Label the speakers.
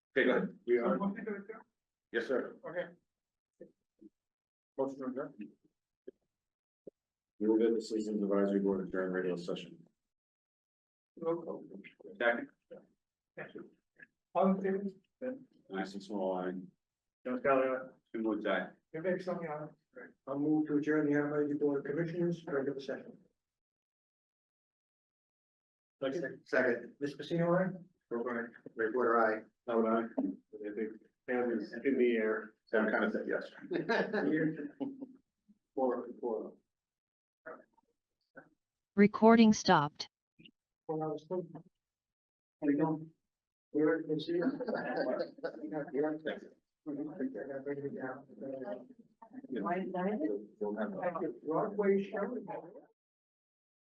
Speaker 1: Okay, go ahead.
Speaker 2: We are,
Speaker 1: Yes, sir.
Speaker 2: okay.
Speaker 1: Motion adjourned. We will get the Citizens Advisory Board adjourned radio session. Second.
Speaker 2: All in favor?
Speaker 1: Nice and small, I,
Speaker 2: John Scully, aye.
Speaker 1: two more die.
Speaker 2: Vivek Somani, aye. I'll move to adjourn the Amity Board of Commissioners regular session. Second. Second. Ms. Pacino, aye? O'Brien. Ray Porter, aye. Howard, aye. Hand is in the air.
Speaker 1: So I kind of said yes.
Speaker 2: Four, four.
Speaker 3: Recording stopped.
Speaker 2: Four hours. How you doing? You're, you see? You're- you're-
Speaker 1: You'll have a-
Speaker 2: Broadway show.